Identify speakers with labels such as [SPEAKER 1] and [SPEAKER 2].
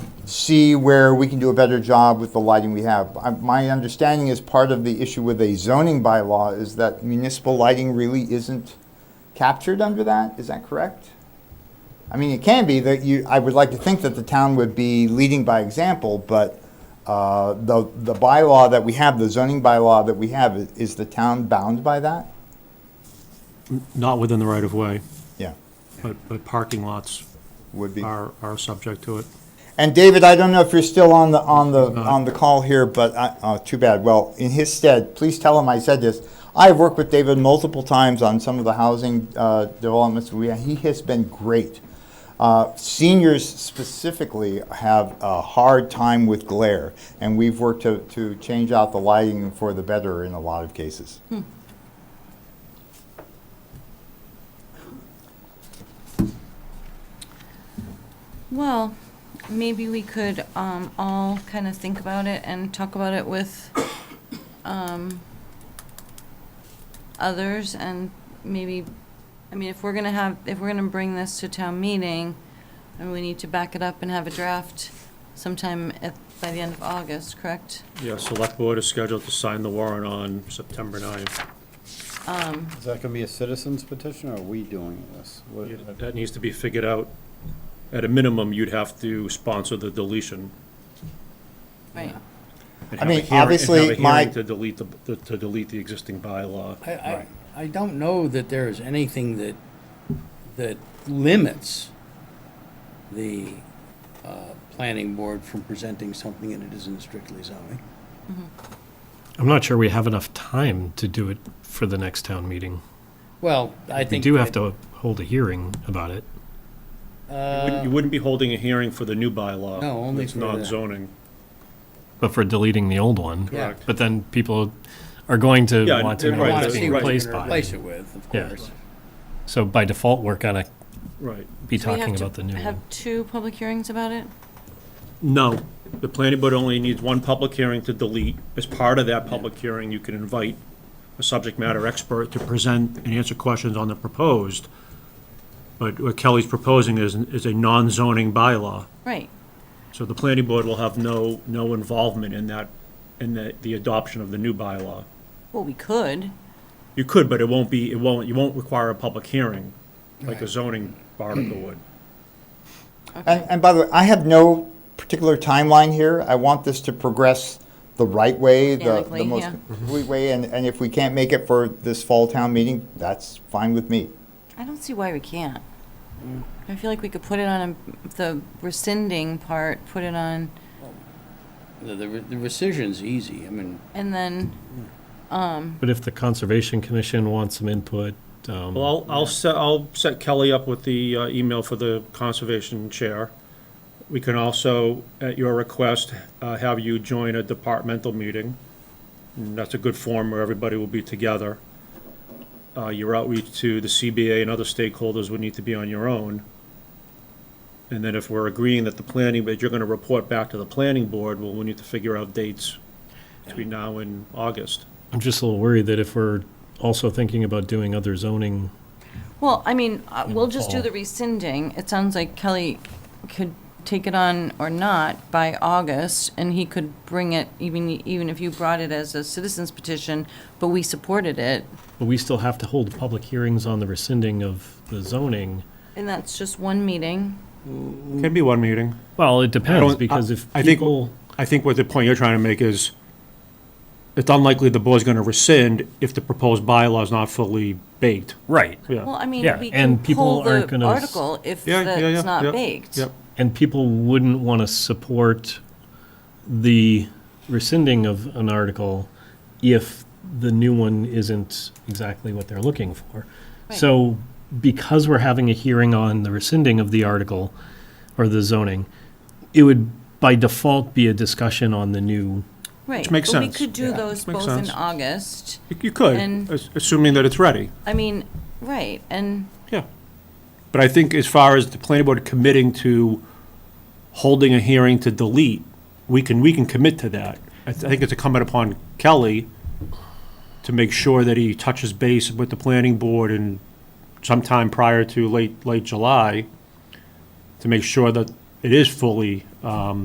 [SPEAKER 1] see where we can do a better job with the lighting we have. I- My understanding is part of the issue with a zoning bylaw is that municipal lighting really isn't captured under that, is that correct? I mean, it can be that you, I would like to think that the town would be leading by example, but uh, the, the bylaw that we have, the zoning bylaw that we have, i- is the town bound by that?
[SPEAKER 2] Not within the right of way,
[SPEAKER 1] Yeah,
[SPEAKER 2] but, but parking lots
[SPEAKER 1] would be.
[SPEAKER 2] are, are subject to it.
[SPEAKER 1] And David, I don't know if you're still on the, on the,
[SPEAKER 2] not.
[SPEAKER 1] on the call here, but I, oh, too bad. Well, in his stead, please tell him I said this. I've worked with David multiple times on some of the housing uh, developments. We, he has been great. Uh, seniors specifically have a hard time with glare, and we've worked to, to change out the lighting for the better in a lot of cases.
[SPEAKER 3] Well, maybe we could um, all kind of think about it and talk about it with um, others and maybe, I mean, if we're going to have, if we're going to bring this to town meeting, and we need to back it up and have a draft sometime at, by the end of August, correct?
[SPEAKER 2] Yeah, select board is scheduled to sign the warrant on September 9th.
[SPEAKER 4] Is that gonna be a citizen's petition, or are we doing this? What-
[SPEAKER 2] You- That needs to be figured out. At a minimum, you'd have to sponsor the deletion.
[SPEAKER 3] Right.
[SPEAKER 2] and
[SPEAKER 1] I
[SPEAKER 2] have a
[SPEAKER 1] mean,
[SPEAKER 2] hearing- and have a
[SPEAKER 1] obviously, my-
[SPEAKER 2] hearing To delete the, to- to delete the existing bylaw.
[SPEAKER 5] I, I, I don't know that there is anything that, that limits the, uh, planning board from presenting something and it isn't strictly zoning.
[SPEAKER 6] I'm not sure we have enough time to do it for the next town meeting.
[SPEAKER 5] Well, I
[SPEAKER 6] We
[SPEAKER 5] think.
[SPEAKER 6] do have
[SPEAKER 5] that-
[SPEAKER 6] to hold a hearing about it.
[SPEAKER 2] You wouldn't- You wouldn't be holding a hearing for the new bylaw.
[SPEAKER 5] No, only
[SPEAKER 2] It's
[SPEAKER 5] for the-
[SPEAKER 2] non-zoning.
[SPEAKER 6] But for deleting the old one.
[SPEAKER 5] Yeah.
[SPEAKER 6] But then people are going to
[SPEAKER 2] Yeah,
[SPEAKER 6] want to
[SPEAKER 2] they're
[SPEAKER 6] know
[SPEAKER 5] I
[SPEAKER 2] right,
[SPEAKER 6] what
[SPEAKER 5] want
[SPEAKER 6] it's
[SPEAKER 5] to see
[SPEAKER 6] being
[SPEAKER 5] what you're
[SPEAKER 6] replaced
[SPEAKER 5] gonna
[SPEAKER 6] by.
[SPEAKER 5] replace it with, of
[SPEAKER 6] Yeah.
[SPEAKER 5] course.
[SPEAKER 6] So by default, we're gonna
[SPEAKER 2] Right.
[SPEAKER 6] be
[SPEAKER 3] So we
[SPEAKER 6] talking
[SPEAKER 3] have to
[SPEAKER 6] about the new
[SPEAKER 3] Have
[SPEAKER 6] one.
[SPEAKER 3] two public hearings about it?
[SPEAKER 2] No, the planning board only needs one public hearing to delete. As part of that public hearing, you can invite a subject matter expert to present and answer questions on the proposed. But what Kelly's proposing is, is a non-zoning bylaw.
[SPEAKER 3] Right.
[SPEAKER 2] So the planning board will have no, no involvement in that, in the, the adoption of the new bylaw.
[SPEAKER 3] Well, we could.
[SPEAKER 2] You could, but it won't be, it won't, you won't require a public hearing, like a zoning article would.
[SPEAKER 1] And, and by the way, I have no particular timeline here. I want this to progress the right way, the, the
[SPEAKER 3] Organically,
[SPEAKER 1] most
[SPEAKER 3] yeah.
[SPEAKER 1] complete way, and, and if we can't make it for this fall town meeting, that's fine with me.
[SPEAKER 3] I don't see why we can't. I feel like we could put it on a- the rescinding part, put it on,
[SPEAKER 5] The, the the rescission's easy, I mean,
[SPEAKER 3] and then,
[SPEAKER 6] But if the Conservation Commission wants some input, um,
[SPEAKER 2] Well, I'll, I'll set, I'll set Kelly up with the uh, email for the conservation chair. We can also, at your request, uh, have you join a departmental meeting. And that's a good forum where everybody will be together. Uh, your outreach to the CBA and other stakeholders would need to be on your own. And then if we're agreeing that the planning, that you're gonna report back to the planning board, well, we need to figure out dates between now and August.
[SPEAKER 6] I'm just a little worried that if we're also thinking about doing other zoning,
[SPEAKER 3] well, I mean, uh,
[SPEAKER 6] In
[SPEAKER 3] we'll
[SPEAKER 6] the
[SPEAKER 3] just do
[SPEAKER 6] fall.
[SPEAKER 3] the rescinding. It sounds like Kelly could take it on or not by August, and he could bring it, even, even if you brought it as a citizen's petition, but we supported it,
[SPEAKER 6] but we still have to hold public hearings on the rescinding of the zoning.
[SPEAKER 3] and that's just one meeting.
[SPEAKER 2] Can be one meeting.
[SPEAKER 6] Well, it
[SPEAKER 2] I
[SPEAKER 6] depends,
[SPEAKER 2] don't-
[SPEAKER 6] because if
[SPEAKER 2] I- I think-
[SPEAKER 6] people.
[SPEAKER 2] I think what the point you're trying to make is, it's unlikely the board's gonna rescind if the proposed bylaw is not fully baked.
[SPEAKER 6] Right.
[SPEAKER 2] Yeah.
[SPEAKER 3] Well, I mean,
[SPEAKER 6] Yeah,
[SPEAKER 3] we can
[SPEAKER 6] and people
[SPEAKER 3] pull
[SPEAKER 6] aren't
[SPEAKER 3] the
[SPEAKER 6] gonna s-
[SPEAKER 3] article if
[SPEAKER 2] Yeah, yeah, yeah,
[SPEAKER 3] it's not
[SPEAKER 2] yeah,
[SPEAKER 3] baked.
[SPEAKER 2] Yep.
[SPEAKER 6] And people wouldn't want to support the rescinding of an article if the new one isn't exactly what they're looking for.
[SPEAKER 3] Right.
[SPEAKER 6] So because we're having a hearing on the rescinding of the article or the zoning, it would by default be a discussion on the new.
[SPEAKER 3] Right.
[SPEAKER 2] makes
[SPEAKER 3] but
[SPEAKER 2] sense.
[SPEAKER 3] we could do
[SPEAKER 2] Yeah.
[SPEAKER 3] those
[SPEAKER 2] Makes
[SPEAKER 3] both in
[SPEAKER 2] sense.
[SPEAKER 3] August.
[SPEAKER 2] You- You could,
[SPEAKER 3] And-
[SPEAKER 2] as- assuming that it's ready,
[SPEAKER 3] I mean, right, and
[SPEAKER 2] yeah. But I think as far as the planning board committing to holding a hearing to delete, we can, we can commit to that. I th- I think it's incumbent upon Kelly to make sure that he touches base with the planning board and sometime prior to late, late July, to make sure that it is fully, um,